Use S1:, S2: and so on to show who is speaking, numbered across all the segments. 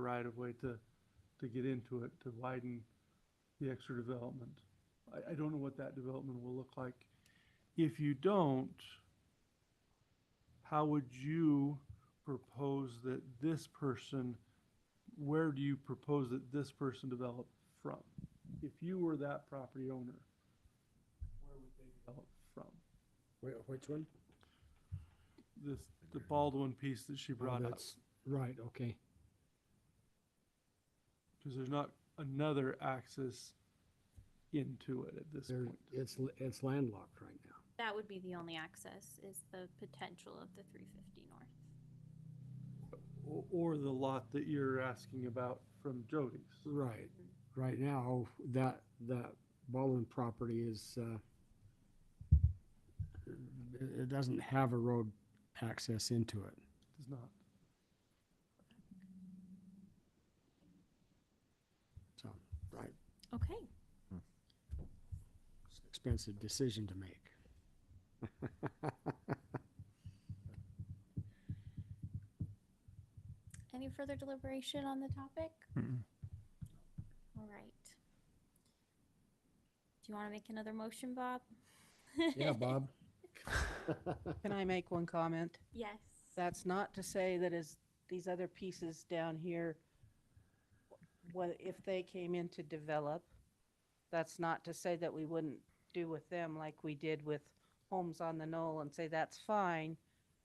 S1: right of way to, to get into it, to widen the extra development. I, I don't know what that development will look like. If you don't, how would you propose that this person, where do you propose that this person develop from? If you were that property owner, where would they develop from?
S2: Wh- Which one?
S1: This, the Baldwin piece that she
S2: Oh,
S1: brought up,
S2: that's- Right, okay.
S1: because there's not another access into it at this
S2: There,
S1: point.
S2: it's, l- it's landlocked right now.
S3: That would be the only access, is the potential of the three fifty north.
S1: O- Or the lot that you're asking about from Jody's.
S2: Right, right now, that, that Baldwin property is, uh, it, it doesn't have a road access into it.
S1: Does not.
S2: So, right,
S3: Okay,
S2: it's an expensive decision to make.
S3: any further deliberation on the topic? All right. Do you want to make another motion, Bob?
S2: Yeah, Bob?
S4: Can I make one comment?
S3: Yes.
S4: That's not to say that as these other pieces down here, what, if they came in to develop, that's not to say that we wouldn't do with them like we did with Homes on the Knoll and say, that's fine,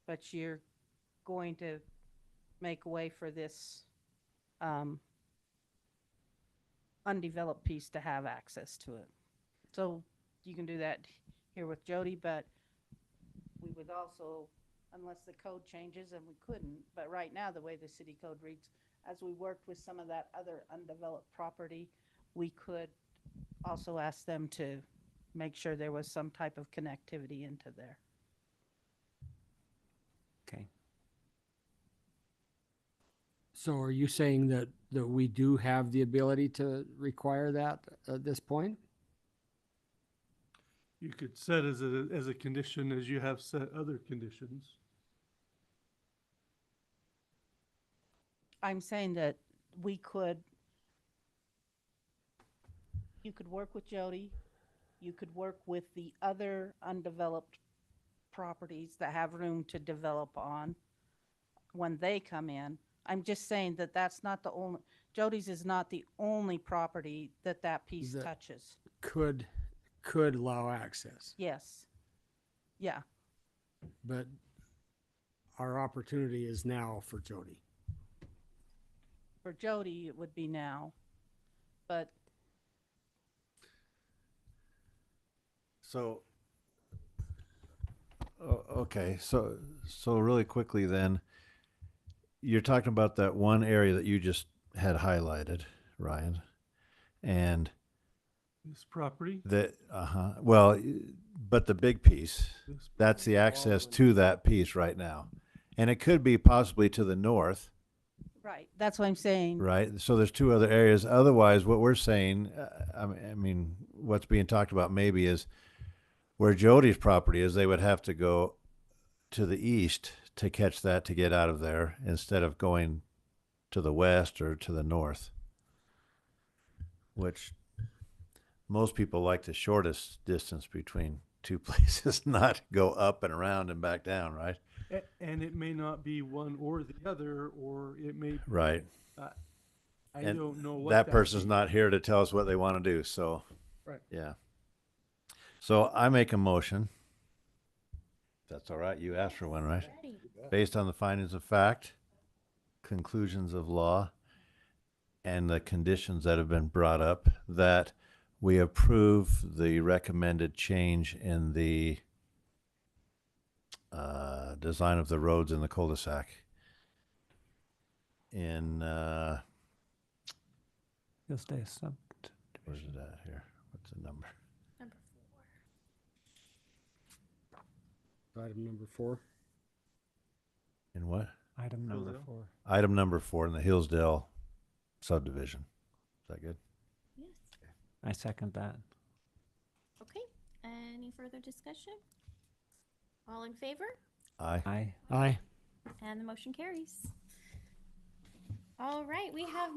S4: but you're going to make way for this, um, undeveloped piece to have access to it. So you can do that here with Jody, but we would also unless the code changes and we couldn't. But right now, the way the city code reads, as we worked with some of that other undeveloped property, we could also ask them to make sure there was some type of connectivity into there.
S5: Okay.
S2: So are you saying that, that we do have the ability to require that at this point?
S1: You could set as a, as a condition, as you have set other conditions.
S4: I'm saying that we could, you could work with Jody, you could work with the other undeveloped properties that have room to develop on when they come in. I'm just saying that that's not the only, Jody's is not the only property that that piece
S2: That-
S4: touches.
S2: Could, could allow access?
S4: Yes. Yeah,
S2: But our opportunity is now for Jody.
S4: for Jody, it would be now, but
S5: So
S6: O- Okay, so, so really quickly then, you're talking about that one area that you just had highlighted, Ryan. And
S1: This property,
S6: that, uh-huh, well, y- but the big piece,
S1: this.
S6: that's the access to that piece right now. And it could be possibly to the north,
S4: right, that's what I'm saying.
S6: right? So there's two other areas. Otherwise, what we're saying, uh, I mean, I mean, what's being talked about maybe is where Jody's property is, they would have to go to the east to catch that to get out of there instead of going to the west or to the north, which most people like the shortest distance between two places, not go up and around and back down, right?
S1: A- And it may not be one or the other, or it may,
S6: Right.
S1: I
S6: And
S1: don't know what.
S6: that person's
S1: means.
S6: not here to tell us what they want to do, so.
S1: Right.
S6: Yeah. So I make a motion. That's all right, you asked for one, right?
S3: Ready.
S6: Based on the findings of fact, conclusions of law, and the conditions that have been brought up, that we approve the recommended change in the uh, design of the roads in the cul-de-sac in, uh,
S5: you'll stay a sub.
S6: Where's it at here? What's the number?
S3: Number
S2: Item number four.
S6: In what?
S5: Item
S1: How's
S5: number
S1: that?
S5: four.
S6: Item number four in the Hillsdale subdivision. Is that good?
S3: Yes.
S5: I second that.
S3: Okay, any further discussion? All in favor?
S6: Aye.
S5: Aye.
S2: Aye.
S3: And the motion carries. All right, we have